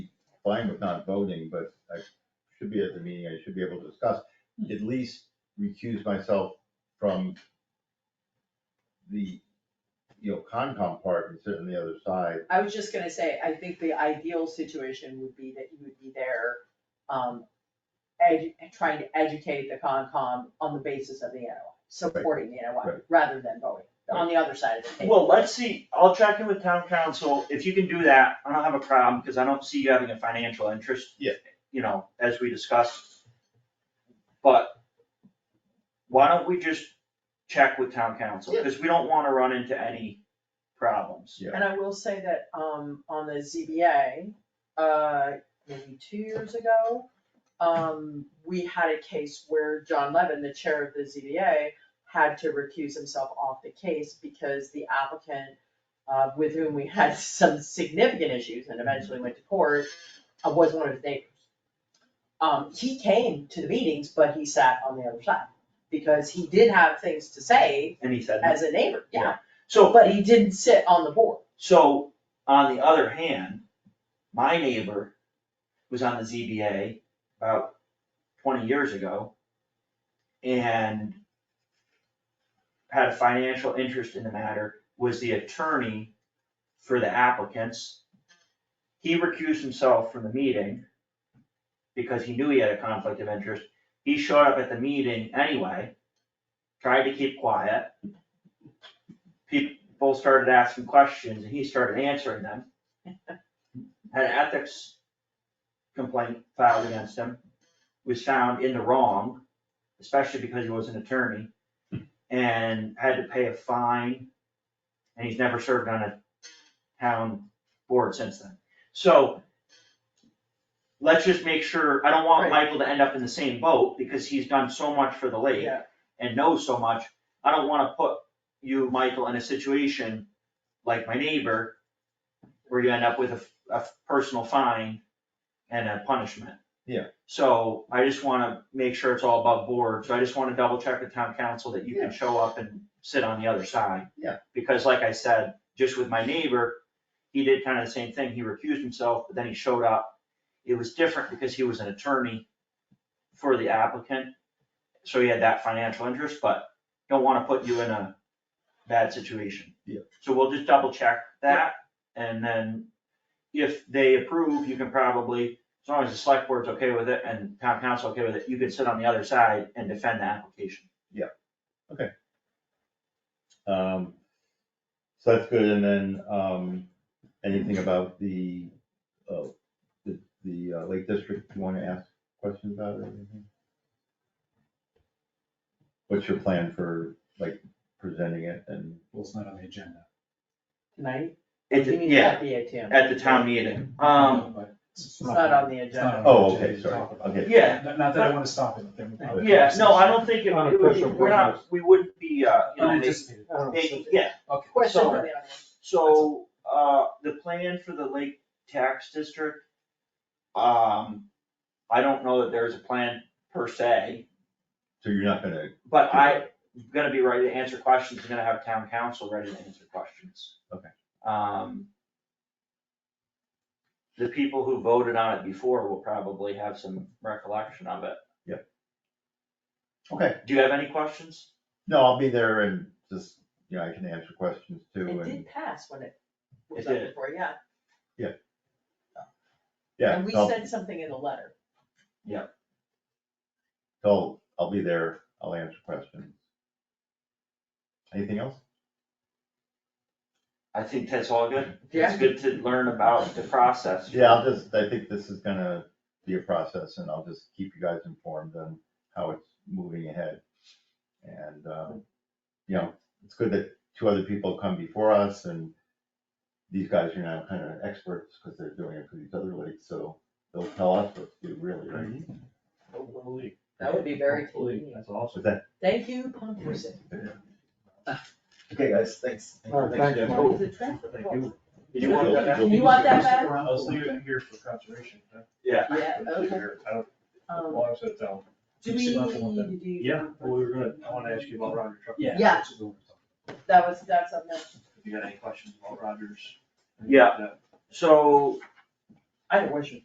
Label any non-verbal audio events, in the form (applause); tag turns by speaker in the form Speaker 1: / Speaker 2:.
Speaker 1: fine with not voting, but I should be at the meeting, I should be able to discuss, at least recuse myself from the, you know, Concom part and sit on the other side.
Speaker 2: I was just gonna say, I think the ideal situation would be that you would be there, um, edu- trying to educate the Concom on the basis of the NOI, supporting the NOI,
Speaker 1: Right.
Speaker 2: rather than voting, on the other side of the table.
Speaker 3: Well, let's see, I'll check in with town council, if you can do that, I don't have a problem, because I don't see you having a financial interest.
Speaker 1: Yeah.
Speaker 3: You know, as we discussed. But why don't we just check with town council, because we don't wanna run into any problems.
Speaker 1: Yeah.
Speaker 2: And I will say that, um, on the ZBA, uh, maybe two years ago, um, we had a case where John Levin, the chair of the ZBA, had to recuse himself off the case because the applicant, uh, with whom we had (laughs) some significant issues and eventually went to court, uh, was one of his neighbors. Um, he came to the meetings, but he sat on the other side, because he did have things to say
Speaker 3: And he said,
Speaker 2: as a neighbor, yeah.
Speaker 3: so,
Speaker 2: But he didn't sit on the board.
Speaker 3: so, on the other hand, my neighbor was on the ZBA about twenty years ago. And had a financial interest in the matter, was the attorney for the applicants. He recused himself from the meeting because he knew he had a conflict of interest. He showed up at the meeting anyway, tried to keep quiet. People started asking questions and he started answering them. Had an ethics complaint filed against him, was found in the wrong, especially because he was an attorney, and had to pay a fine, and he's never served on a town board since then. So let's just make sure, I don't want
Speaker 2: Right.
Speaker 3: Michael to end up in the same boat, because he's done so much for the lake
Speaker 2: Yeah.
Speaker 3: and knows so much, I don't wanna put you, Michael, in a situation like my neighbor, where you end up with a, f- a f- personal fine and a punishment.
Speaker 1: Yeah.
Speaker 3: So I just wanna make sure it's all above board, so I just wanna double check with town council that you
Speaker 1: Yeah.
Speaker 3: can show up and sit on the other side.
Speaker 1: Yeah.
Speaker 3: Because like I said, just with my neighbor, he did kinda the same thing, he recused himself, but then he showed up. It was different because he was an attorney for the applicant, so he had that financial interest, but don't wanna put you in a bad situation.
Speaker 1: Yeah.
Speaker 3: So we'll just double check that, and then if they approve, you can probably, as long as the select board's okay with it and town council okay with it, you can sit on the other side and defend the application.
Speaker 1: Um, so that's good, and then, um, anything about the, uh, the, the uh, Lake District, you wanna ask questions about or anything? What's your plan for, like, presenting it and,
Speaker 4: Well, it's not on the agenda.
Speaker 2: Tonight?
Speaker 3: It,
Speaker 2: You mean
Speaker 3: yeah,
Speaker 2: at the ATM.
Speaker 3: at the town meeting, um,
Speaker 4: But It's
Speaker 2: It's not on the
Speaker 4: it's not
Speaker 2: agenda.
Speaker 4: on
Speaker 1: Oh,
Speaker 4: the
Speaker 1: okay,
Speaker 4: agenda to
Speaker 1: sorry,
Speaker 4: talk about.
Speaker 1: okay.
Speaker 3: yeah,
Speaker 4: Not not that I wanna stop it, but then. we'll have a
Speaker 3: yeah, no, I don't
Speaker 4: conversation.
Speaker 3: think it,
Speaker 5: Not
Speaker 3: it would be-
Speaker 5: official
Speaker 3: we're not, we wouldn't be, uh, you know, they,
Speaker 4: Unanticipated.
Speaker 3: they, yeah,
Speaker 4: Okay.
Speaker 2: Question
Speaker 3: So-
Speaker 2: for the other
Speaker 3: So, uh, the plan for the Lake Tax District, um, I don't know that there's a plan per se,
Speaker 1: so you're not gonna?
Speaker 3: but I'm gonna be ready to answer questions, I'm gonna have town council ready to answer questions.
Speaker 1: Okay.
Speaker 3: Um, the people who voted on it before will probably have some recollection of it.
Speaker 1: Yep. Okay.
Speaker 3: Do you have any questions?
Speaker 1: No, I'll be there and just, you know, I can answer questions too,
Speaker 2: one. It
Speaker 1: and,
Speaker 2: did pass when it was
Speaker 3: It
Speaker 2: up
Speaker 3: did.
Speaker 2: before, yeah.
Speaker 1: yeah.
Speaker 2: And we
Speaker 1: I'll-
Speaker 2: said something in the letter.
Speaker 1: So I'll be there, I'll answer questions. Anything else?
Speaker 3: I think that's all good.
Speaker 2: Yeah.
Speaker 3: It's good to learn about the process.
Speaker 1: Yeah, I'll just, I think this is gonna be a process and I'll just keep you guys informed on how it's moving ahead. And, um, you know, it's good that two other people come before us and these guys are now kind of experts because they're doing it for these other leagues, so they'll tell us what to do really, right?
Speaker 5: Hopefully.
Speaker 2: That would be very
Speaker 5: Hopefully,
Speaker 2: convenient.
Speaker 5: that's awesome.
Speaker 1: So that,
Speaker 2: Thank you, Pump Reset.
Speaker 1: okay, guys, thanks.
Speaker 5: All right, thanks,
Speaker 1: Jeff.
Speaker 5: Mike.
Speaker 2: Is it transfer?
Speaker 5: Thank you.
Speaker 3: Did you want
Speaker 1: that back?
Speaker 2: You want that back?
Speaker 5: I'll leave it here for conservation. huh?
Speaker 3: Yeah.
Speaker 2: Yeah,
Speaker 5: Leave it
Speaker 2: okay.
Speaker 5: here. I don't, as
Speaker 2: Um,
Speaker 5: long as it's down.
Speaker 2: do we need
Speaker 5: Six months, I want
Speaker 2: to do?
Speaker 5: that. Yeah, well, we were gonna, I wanna ask you about Roger Truck.
Speaker 4: Yeah.
Speaker 2: Yeah.
Speaker 4: which is the one we're talking
Speaker 2: That was, that's on the,
Speaker 5: If you got any questions about Rogers.
Speaker 3: Yeah. So
Speaker 2: I had a question.